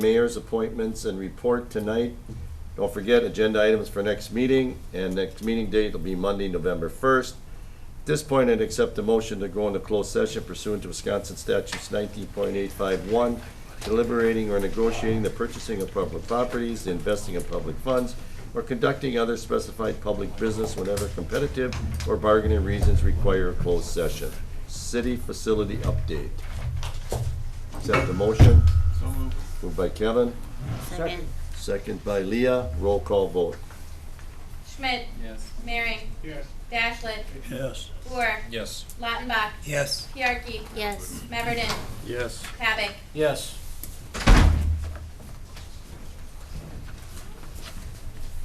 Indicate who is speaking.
Speaker 1: mayor's appointments and report tonight. Don't forget, agenda items for next meeting, and next meeting date will be Monday, November 1st. At this point, I'd accept a motion to go into closed session pursuant to Wisconsin statutes 19.851, deliberating or negotiating the purchasing of public properties, the investing of public funds, or conducting other specified public business whenever competitive or bargaining reasons require a closed session. City facility update. Accept the motion. Moved by Kevin,
Speaker 2: Second.
Speaker 1: second by Leah, roll call vote.
Speaker 2: Schmidt.
Speaker 3: Yes.
Speaker 2: Mary.
Speaker 3: Yes.
Speaker 2: Dashlet.
Speaker 4: Yes.
Speaker 2: Boer.
Speaker 3: Yes.
Speaker 2: Lautenbach.
Speaker 4: Yes.
Speaker 2: Piarkey.
Speaker 5: Yes.
Speaker 2: Meverden.
Speaker 3: Yes.
Speaker 2: Pavick.
Speaker 4: Yes.